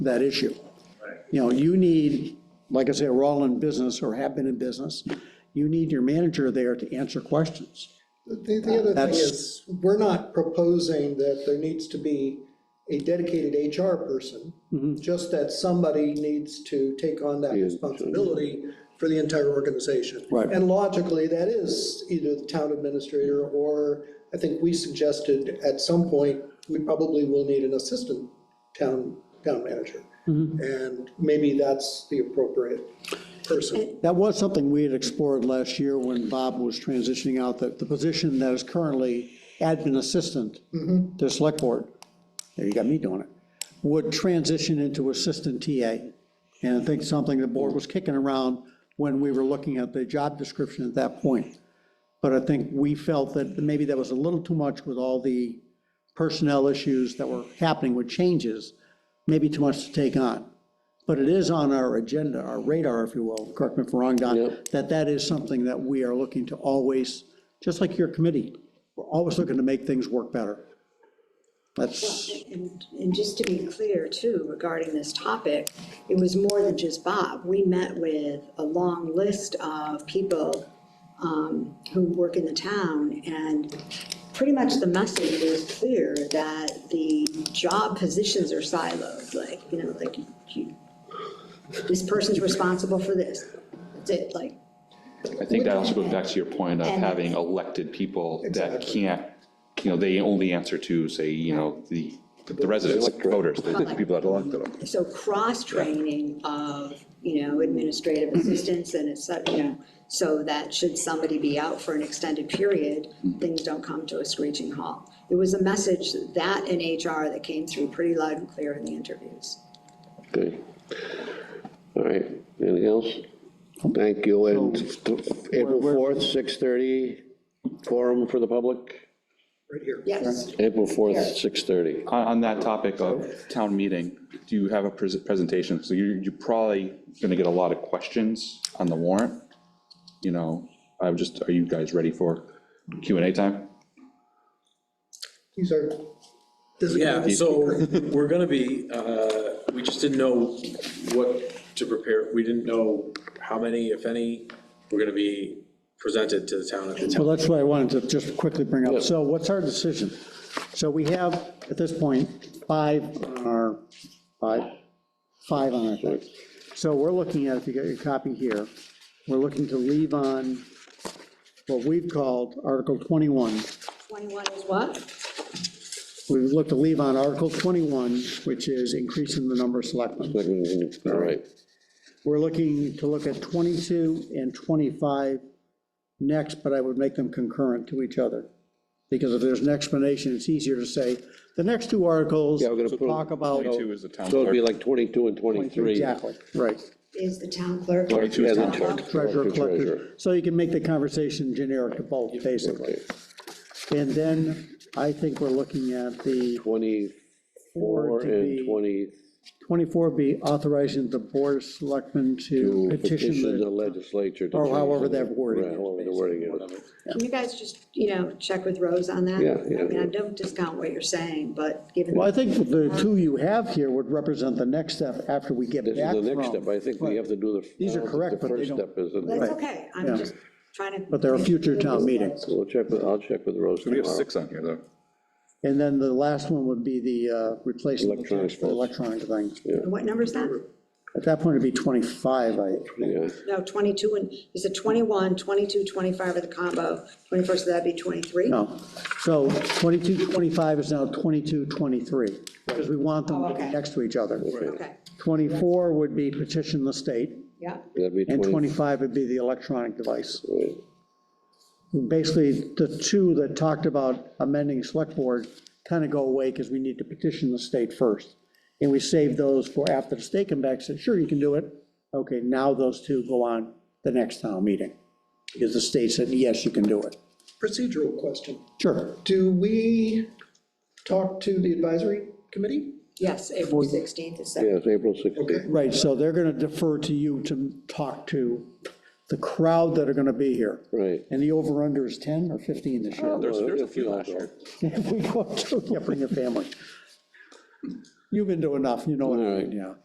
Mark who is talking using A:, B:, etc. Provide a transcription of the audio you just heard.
A: that issue. You know, you need, like I say, we're all in business or have been in business, you need your manager there to answer questions.
B: The, the other thing
A: That's-
B: is, we're not proposing that there needs to be a dedicated HR person, just that somebody needs to take on that responsibility for the entire organization.
A: Right.
B: And logically, that is either the town administrator, or I think we suggested at some point, we probably will need an assistant town, town manager. And maybe that's the appropriate person.
A: That was something we had explored last year when Bob was transitioning out, that the position that is currently admin assistant to select board, there you got me doing it, would transition into assistant TA. And I think something the board was kicking around when we were looking at the job description at that point. But I think we felt that maybe that was a little too much with all the personnel issues that were happening with changes, maybe too much to take on. But it is on our agenda, our radar, if you will, correct me if I'm wrong, Don, that that is something that we are looking to always, just like your committee, we're always looking to make things work better. That's,
C: And, and just to be clear too, regarding this topic, it was more than just Bob. We met with a long list of people um, who work in the town and pretty much the message was clear that the job positions are siloed, like, you know, like you, this person's responsible for this. That's it, like,
D: I think that also goes back to your point of having elected people that can't, you know, they only answer to, say, you know, the, the residents, voters, the the people that elected them.
C: so cross-training of, you know, administrative assistants and it's, you know, so that should somebody be out for an extended period, things don't come to a screeching halt. It was a message that in HR that came through pretty loud and clear in the interviews.
E: Okay. All right, anything else? Thank you, and th- April
A: We're-
E: 4th, 6:30, forum for the public,
B: Right here.
C: Yes,
E: April 4th, 6:30.
D: On, on that topic of town meeting, do you have a pres- presentation? So you're, you're probably gonna get a lot of questions on the warrant. You know, I'm just, are you guys ready for Q and A time?
B: These are.
F: Yeah, so we're gonna be, uh, we just didn't know what to prepare, we didn't know how many, if any, were gonna be presented to the town at the town.
A: well, that's what I wanted to just quickly bring up. So what's our decision? So we have, at this point, five on our, five, five on our thing. So we're looking at, if you got your copy here, we're looking to leave on what we've called Article 21,
C: twenty-one is what?
A: We would look to leave on Article 21, which is increasing the number of selectmen.
E: All right,
A: We're looking to look at 22 and 25 next, but I would make them concurrent to each other. Because if there's an explanation, it's easier to say, the next two articles
E: Yeah, we're gonna put 'em-
A: talk about.
D: Twenty-two is the town
E: so it'd be
D: clerk.
E: like 22 and 23.
A: Exactly, right.
C: Is the town clerk.
D: Twenty-two
E: Yeah,
D: is
E: the
D: town clerk.
E: clerk.
A: Treasurer,
E: Collector,
A: collector.
E: treasurer.
A: So you can make the conversation generic to both, basically.
E: Okay,
A: And then I think we're looking at the
E: 24
A: Or to be-
E: and 20,
A: 24 be authorizing the board of selectmen to petition
E: petition the
A: the
E: legislature. to
A: Or
E: change
A: however
E: it.
A: that wording
E: Right,
A: is,
E: However the wording is.
C: Can you guys just, you know, check with Rose on that?
E: Yeah, yeah,
C: I mean, I
E: yeah.
C: don't discount what you're saying, but given.
A: Well, I think the two you have here would represent the next step after we get
E: This
A: back
E: is the next
A: from.
E: step, I think we have to do the.
A: These are correct,
E: The
A: but they
E: first
A: don't-
E: step is, in-
C: That's
A: Right.
C: okay,
A: Yeah.
C: I'm just trying to.
A: But there are future town meetings.
E: we'll check, with- I'll check with Rose
D: We have
E: tomorrow.
D: six on here, though.
A: And then the last one would be the uh, replacement of
E: Electronic
A: the
E: votes.
A: electronic things.
C: What number is that?
A: At that point, it'd be 25, I,
E: Yeah.
C: No, 22 and, is it 21, 22, 25 are the combo, 24, so that'd be 23?
A: no. So 22, 25 is now 22, 23, because we want them to be
C: okay.
A: next to each other.
C: Okay,
A: 24 would be petition the state,
C: yeah,
E: That'd be
A: and
E: 20.
A: 25 would be the electronic device.
E: right.
A: basically, the two that talked about amending select board kind of go away because we need to petition the state first. And we save those for after the state come back, said, sure, you can do it. Okay, now those two go on the next town meeting. Because the state said, yes, you can do it.
B: Procedural question.
A: Sure.
B: Do we talk to the advisory committee?
C: yes, April 16th is that.
E: Yes, April 16th.
A: Right, so they're going to defer to you to talk to the crowd that are going to be here.
E: Right.
A: And the over-under is 10 or 15 this year.
D: There's, there's a few last year.
A: If we go to, yeah, bring your family. You've been to enough, you know, what I
E: All
A: mean,
E: right.
A: yeah.